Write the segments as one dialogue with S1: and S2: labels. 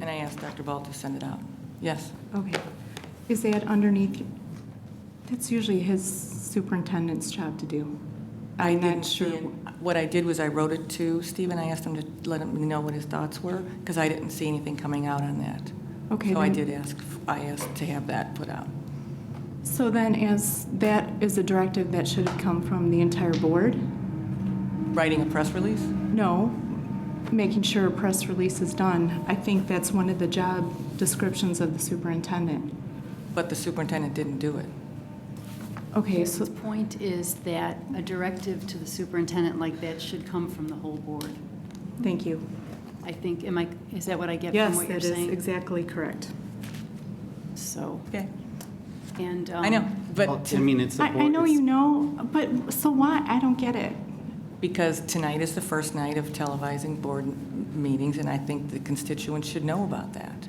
S1: And I asked Dr. Ball to send it out. Yes.
S2: Okay. Is that underneath, that's usually his superintendent's job to do. I'm
S1: didn't
S2: not sure.
S1: see it. What I did was I wrote it to Stephen. I asked him to let him know what his thoughts were, because I didn't see anything coming out on that.
S2: Okay,
S1: So I
S2: then-
S1: did ask, I asked to have that put out.
S2: So then as, that is a directive that should come from the entire board?
S1: Writing a press release?
S2: No, making sure a press release is done. I think that's one of the job descriptions of the superintendent.
S1: But the superintendent didn't do it.
S2: Okay, so,
S3: The point is that a directive to the superintendent like that should come from the whole board.
S2: thank you.
S3: I think, am I, is that what I get from
S2: Yes,
S3: what you're
S2: that is
S3: saying?
S2: exactly correct.
S3: So,
S1: Okay.
S3: and.
S1: I know,
S3: um,
S4: Well,
S1: but
S4: I mean, it's the
S2: I,
S4: board.
S2: I know
S4: it's-
S2: you know, but so why? I don't get it.
S1: because tonight is the first night of televising board m- meetings, and I think the constituents should know about that.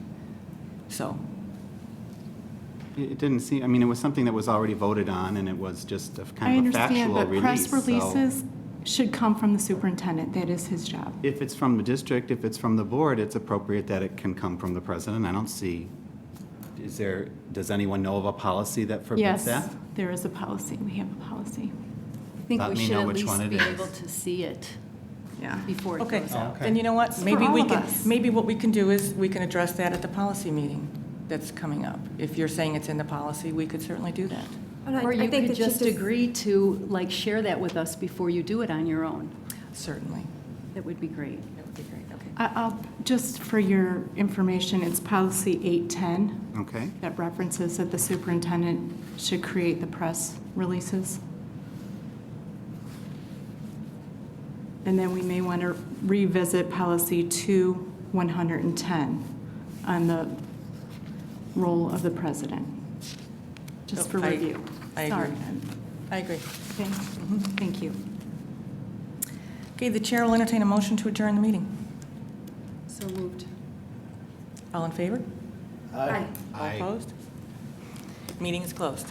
S1: So,
S4: It it didn't seem, I mean, it was something that was already voted on, and it was just a
S2: I
S4: kind of a
S2: understand,
S4: factual
S2: but
S4: release.
S2: press
S4: so
S2: releases should come from the superintendent. That is his job.
S4: If it's from the district, if it's from the board, it's appropriate that it can come from the president. I don't see, is there, does anyone know of a policy that forbids
S2: Yes,
S4: that?
S2: there is a policy. We have a policy.
S3: I think
S4: Let
S3: we
S4: me
S3: should
S4: know
S3: at
S4: which one
S3: least
S4: it
S3: be
S4: is.
S3: able to see it
S2: Yeah.
S3: before it
S1: okay,
S3: goes out.
S1: then you know what?
S2: for
S1: Maybe
S2: all
S1: we
S2: of
S1: can,
S2: us.
S1: maybe what we can do is, we can address that at the policy meeting that's coming up. If you're saying it's in the policy, we could certainly do that.
S5: And I-
S3: Or
S5: I
S3: you
S5: think
S3: could
S5: that she
S3: just agree to, like, share that with us before you do it on your own.
S1: Certainly.
S3: That would be great.
S1: That would be great, okay.
S2: I- I'll, just for your information, it's policy 810
S4: Okay.
S2: that references that the superintendent should create the press releases. And then we may want to revisit policy 2110 on the role of the president, just for
S1: Oh, I-
S2: review.
S1: I agree. Mm-hmm.
S2: Sorry.
S1: I agree.
S2: Thank- Thank you.
S1: Okay, the chair will entertain a motion to adjourn the meeting.
S3: So moved.
S1: All in favor? Aye. All opposed? Meeting is closed.